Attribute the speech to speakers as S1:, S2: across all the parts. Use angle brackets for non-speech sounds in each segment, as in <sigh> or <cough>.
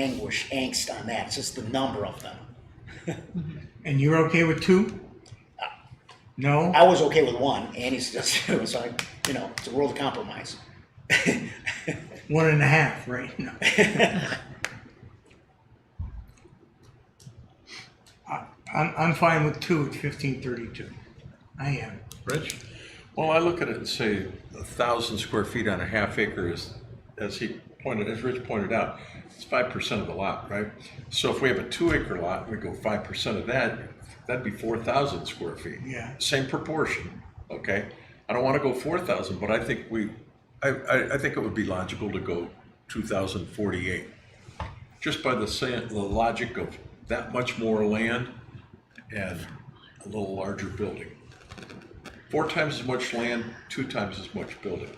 S1: anguish, angst on that. It's just the number of them.
S2: And you're okay with two? No?
S1: I was okay with one, Annie's just <laughs> two, so I, you know, it's a world of compromise.
S2: One and a half, right? No. I- I'm, I'm fine with two at fifteen thirty-two. I am.
S3: Rich? Well, I look at it and say a thousand square feet on a half acre is, as he pointed, as Rich pointed out, it's five percent of the lot, right? So if we have a two acre lot, we go five percent of that, that'd be four thousand square feet.
S2: Yeah.
S3: Same proportion, okay? I don't wanna go four thousand, but I think we, I, I, I think it would be logical to go two thousand forty-eight. Just by the sa- the logic of that much more land and a little larger building. Four times as much land, two times as much building.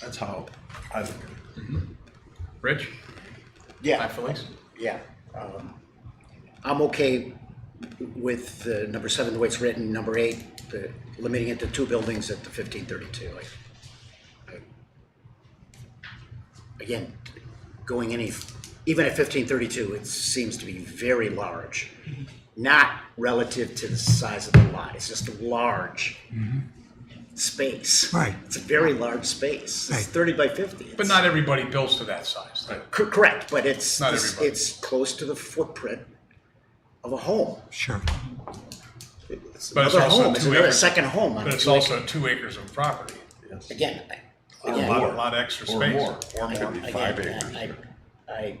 S3: That's how I look at it.
S4: Rich?
S1: Yeah.
S4: Hi, Felix?
S1: Yeah. um, I'm okay with uh, number seven, the way it's written, number eight, the- limiting it to two buildings at the fifteen thirty-two. Again, going any, even at fifteen thirty-two, it seems to be very large. Not relative to the size of the lot, it's just a large space.
S2: Mm-hmm. Right.
S1: It's a very large space,
S2: Right.
S1: it's thirty by fifty.
S4: But
S1: It's-
S4: not everybody builds to that size.
S1: Cor- Correct, but it's,
S4: Not
S1: it's
S4: everybody.
S1: it's close to the footprint of a home.
S2: Sure.
S1: It's
S4: But it's
S1: another
S4: also
S1: home, it's
S4: two
S1: another
S4: acres.
S1: second home. on
S4: But it's
S1: two acres.
S4: also two acres of property.
S3: Yes.
S1: Again, I-
S3: Or
S1: again,
S4: A lot,
S3: more.
S4: a lot of extra
S3: Or
S4: space.
S3: more.
S1: I-
S3: Could be five
S1: again,
S3: acres.
S1: I, I,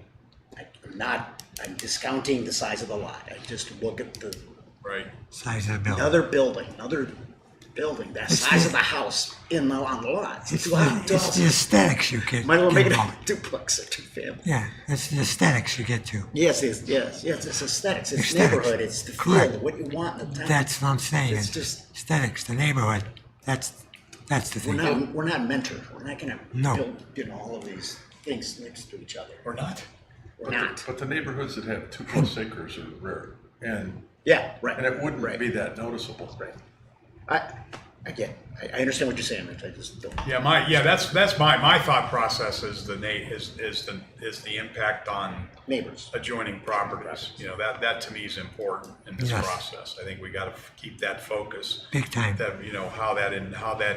S1: I'm not, I'm discounting the size of the lot. I just look at the,
S4: Right.
S5: size of the building.
S1: another building, another building, the size of the house in the, on the lot.
S5: It's
S1: It's a
S5: the,
S1: lot of
S5: it's the
S1: dogs.
S5: aesthetics you get,
S1: Might as well make
S5: get
S1: it a
S5: going.
S1: <laughs> duplex or two family.
S5: Yeah, it's the aesthetics you get to.
S1: Yes, it's, yes, yes, it's aesthetics, it's
S5: Aesthetics.
S1: neighborhood, it's the
S5: Correct.
S1: feel, what you want in the town.
S5: That's what I'm saying.
S1: It's
S5: It's
S1: just-
S5: aesthetics, the neighborhood. That's that's the
S1: We're
S5: thing.
S1: not, we're not mentors. We're not gonna
S5: No.
S1: build, you know, all of these things next to each other.
S4: Or not.
S1: We're not.
S3: But the neighborhoods that have two plus acres are rare, and,
S1: Yeah, right.
S3: and it wouldn't
S1: Right.
S3: be that noticeable.
S1: Right. I, again, I, I understand what you're saying, Rich. I just don't.
S4: Yeah, my, yeah, that's, that's my, my thought process is the na, is, is the, is the impact on
S1: Neighbors.
S4: adjoining properties. You know, that, that to me is important in this
S5: Yes.
S4: process. I think we gotta f- keep that focus.
S5: Big time.
S4: That, you know, how that, and how that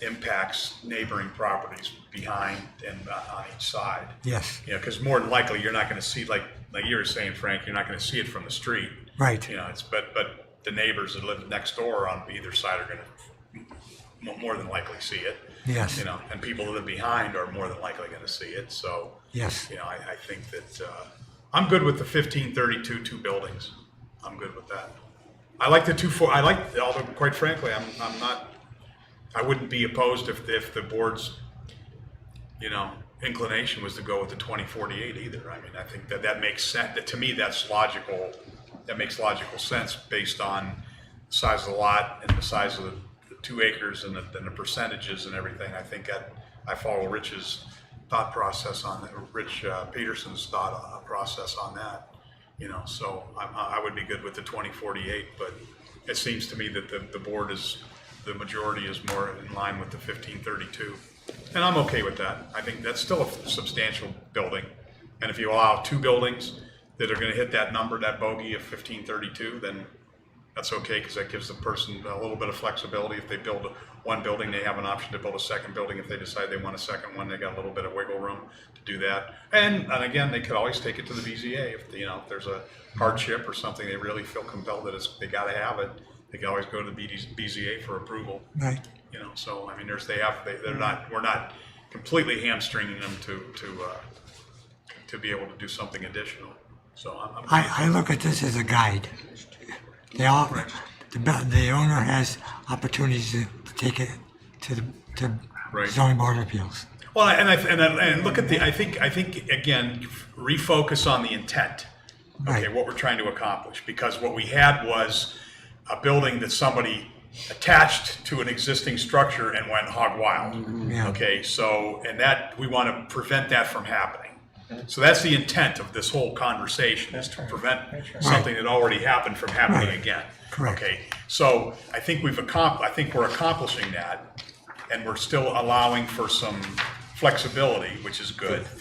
S4: impacts neighboring properties behind and on each side.
S5: Yes,
S4: You know, because more than likely, you're not gonna see, like, like you were saying, Frank, you're not gonna see it from the street.
S5: right.
S4: You know, it's, but, but the neighbors that live next door on either side are gonna mo- more than likely see it.
S5: Yes.
S4: You know, and people that live behind are more than likely gonna see it, so.
S5: Yes.
S4: You know, I, I think that, uh, I'm good with the fifteen thirty-two, two buildings. I'm good with that. I like the two four, I like, although quite frankly, I'm, I'm not, I wouldn't be opposed if, if the board's, you know, inclination was to go with the twenty forty-eight either. I mean, I think that that makes sense, that to me, that's logical, that makes logical sense based on size of the lot and the size of the, the two acres and the, and the percentages and everything. I think that, I follow Rich's thought process on, that- Rich uh, Peterson's thought uh, process on that. You know, so I'm, I I would be good with the twenty forty-eight, but it seems to me that the, the board is, the majority is more in line with the fifteen thirty-two. And I'm okay with that. I think that's still a substantial building. And if you allow two buildings that are gonna hit that number, that bogey of fifteen thirty-two, then that's okay, because that gives the person a little bit of flexibility. If they build one building, they have an option to build a second building. If they decide they want a second one, they got a little bit of wiggle room to do that. And, and again, they could always take it to the BZA if, you know, if there's a hardship or something, they really feel compelled that it's, they gotta have it. They can always go to the BD BZA for approval,
S5: Right.
S4: you know, so, I mean, there's, they have, they, they're not, we're not completely hamstringing them to, to, uh, to be able to do something additional, so I'm. I'm-
S5: I, I look at this as a guide. They all, the, bu- the owner has opportunities to take it to the to
S4: Right.
S5: zoning board of appeals.
S4: Well, and I, and I, and look at the, I think, I think, again, refocus on the intent. Okay,
S5: Right.
S4: what we're trying to accomplish, because what we had was a building that somebody attached to an existing structure and went hog wild.
S5: Mm-hmm. Yeah.
S4: Okay, so, and that, we want to prevent that from happening. So that's the intent of this whole conversation, is to prevent something that already happened from happening
S5: Right.
S4: again.
S5: Correct.
S4: Okay, so I think we've accom, I think we're accomplishing that, and we're still allowing for some flexibility, which is good.